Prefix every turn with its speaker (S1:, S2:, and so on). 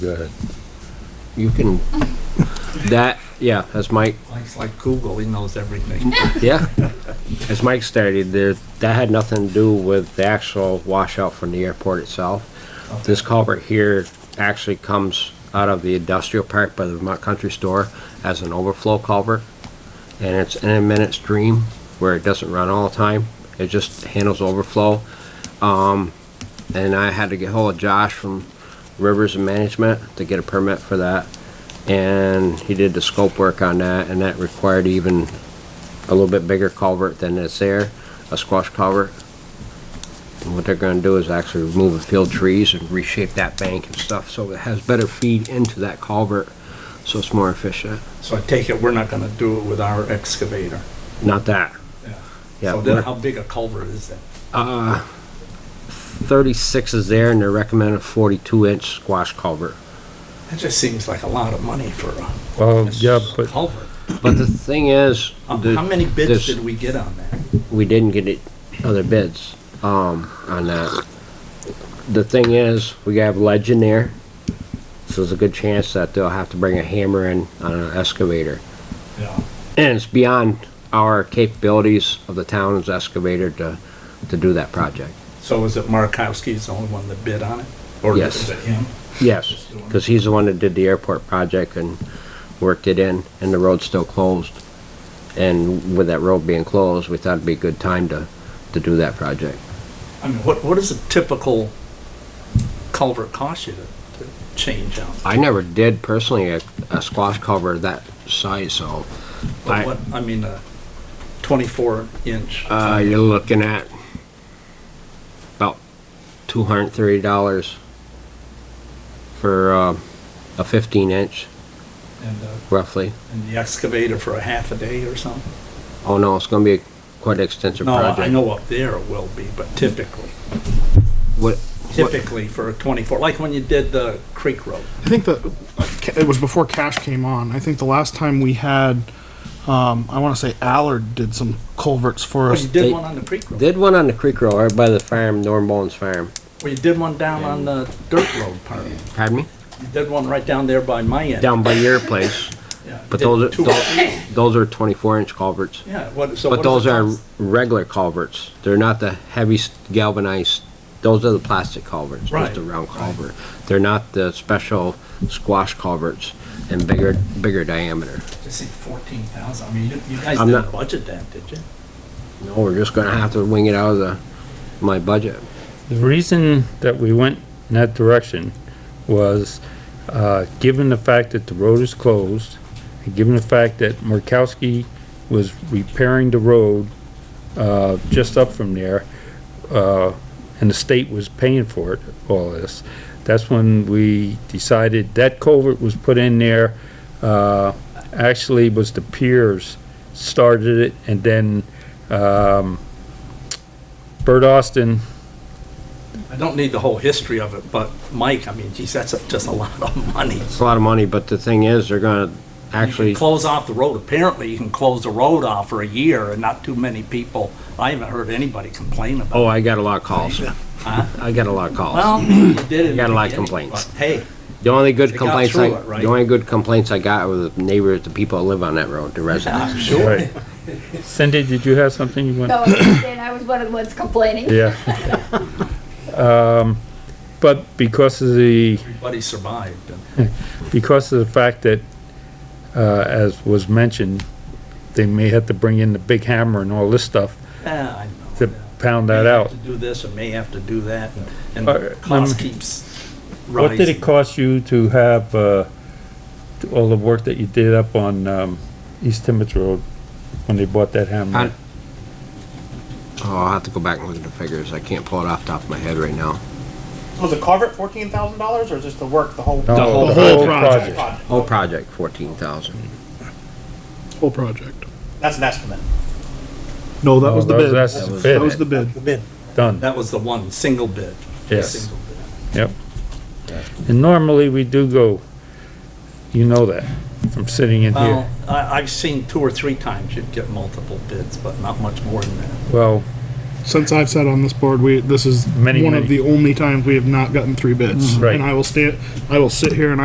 S1: Go ahead.
S2: You can, that, yeah, as Mike,
S3: Mike's like Google, he knows everything.
S2: yeah, as Mike stated, there, that had nothing to do with the actual washout from the airport itself. This culvert here actually comes out of the industrial park by the Vermont Country Store as an overflow culvert. And it's in a minute stream where it doesn't run all the time. It just handles overflow. Um, and I had to get hold of Josh from Rivers and Management to get a permit for that. And he did the scope work on that and that required even a little bit bigger culvert than is there, a squash culvert. And what they're gonna do is actually remove the field trees and reshape that bank and stuff, so it has better feed into that culvert, so it's more efficient.
S3: So I take it we're not gonna do it with our excavator.
S2: Not that, Yeah,
S3: So then
S2: we're-
S3: how big a culvert is that?
S2: thirty-six is there, and they're recommending forty-two inch squash culvert.
S3: That just seems like a lot of money for a
S1: Well, yeah, but
S3: culvert.
S2: But the thing is.
S3: How
S2: the-
S3: Um, how many bids
S2: this-
S3: did we get on that?
S2: we didn't get it, other bids, um, on that. The thing is, we have ledge in there, so there's a good chance that they'll have to bring a hammer in on an excavator.
S3: Yeah.
S2: And it's beyond our capabilities of the town's excavator to, to do that project.
S3: So is it Markowski's the only one that bid on it? Or
S2: Yes.
S3: is it him?
S2: Yes, cause he's the one that did the airport project and worked it in, and the road's still closed. And with that road being closed, we thought it'd be a good time to, to do that project.
S3: I mean, what, what does a typical culvert cost you to, to change out?
S2: I never did personally a, a squash cover that size, so
S3: But
S2: I-
S3: what, I mean, a twenty-four inch.
S2: uh, you're looking at about two hundred thirty dollars for uh, a fifteen inch,
S3: And, uh,
S2: roughly.
S3: and the excavator for a half a day or something?
S2: Oh no, it's going to be quite an extensive
S3: No,
S2: project.
S3: I know up there it will be, but typically,
S2: What? what-
S3: typically for a twenty-four, like when you did the Creek Road.
S4: I think that it was before Cash came on. I think the last time we had, um, I want to say Allard did some culverts for
S3: Well,
S4: us.
S3: you did
S2: they-
S3: one on the Creek Road.
S2: Did one on the creek road right by the farm, Norm Bones Farm.
S3: Well, you did one down on the Dirt Road part. You
S2: Pardon me?
S3: did one right down there by my end.
S2: Down by your place,
S3: Yeah, you
S2: but
S3: did
S2: those are-
S3: two or
S2: those-
S3: three.
S2: those are twenty-four inch culverts.
S3: Yeah, what, so
S2: But
S3: what does
S2: those
S3: it
S2: are
S3: cost?
S2: regular culverts. They're not the heavy s- galvanized, those are the plastic culverts, just
S3: Right,
S2: a round culvert. They're not the special squash culverts and bigger, bigger diameter.
S3: Just say fourteen thousand, I mean, you you guys
S2: I'm
S3: didn't
S2: not-
S3: budget that, did you?
S2: No, we're just gonna have to wing it out of the, my budget.
S5: The reason that we went in that direction was, uh, given the fact that the road is closed, and given the fact that Murkowski was repairing the road, uh, just up from there, uh, and the state was paying for it, all this, that's when we decided that culvert was put in there, uh, actually was the piers started it, and then, um, Bert Austin
S3: I don't need the whole history of it, but Mike, I mean, geez, that's a- just a lot of money. You
S2: It's a lot of money, but the thing is, they're gonna
S3: can
S2: actually,
S3: Close off the road, apparently you can close the road off for a year and not too many people, I haven't heard anybody complain about it.
S2: oh, I got a lot of calls. I got a lot of calls.
S3: Well, you did it.
S2: Got a lot of
S3: again,
S2: complaints.
S3: but Hey,
S2: The only good
S3: got
S2: complaints,
S3: through
S2: I
S3: it, right?
S2: the only good complaints I got were the neighbors, the people that live on that road, the residents.
S3: I'm sure.
S5: Right. Cindy, did you have something you want?
S6: No, and Oh, I was one of the ones complaining.
S5: Yeah. Um, but because of the,
S3: Everybody survived.
S5: because of the fact that, uh, as was mentioned, they may have to bring in the big hammer and all this stuff
S3: Yeah, I know.
S5: to pound that
S3: May have
S5: out.
S3: to Do this and may have to do that, and
S5: Uh,
S3: and cost
S5: um,
S3: keeps
S5: What did it
S3: rising.
S5: cost you to have, uh, all the work that you did up on, um, East Timmets Road when they bought that hammer?
S2: I- Oh, I'll have to go back and look at the figures. I can't pull it off the top of my head right now.
S7: Was the culvert fourteen thousand dollars, or just the work, the whole?
S5: No,
S2: the whole
S4: project.
S7: project?
S2: Whole project, fourteen thousand.
S4: Whole project.
S7: That's an estimate.
S4: No, that
S5: No,
S4: was the
S5: Oh, that was-
S4: bid.
S5: that's
S4: That
S5: the
S4: was
S5: bid.
S4: the bid.
S7: The bid.
S5: Done,
S3: That was the one, single bid.
S5: yes.
S3: Single bid.
S5: Yep. And normally we do go, you know that, from sitting in
S3: Well,
S5: here.
S3: I, I've seen two or three times you'd get multiple bids, but not much more than that.
S5: Well,
S4: since I've sat on this board, we, this is
S5: Many,
S4: one
S5: many- Mm-hmm.
S4: of the only times we have not gotten three bids.
S5: Right.
S4: And I will stay, I will sit here and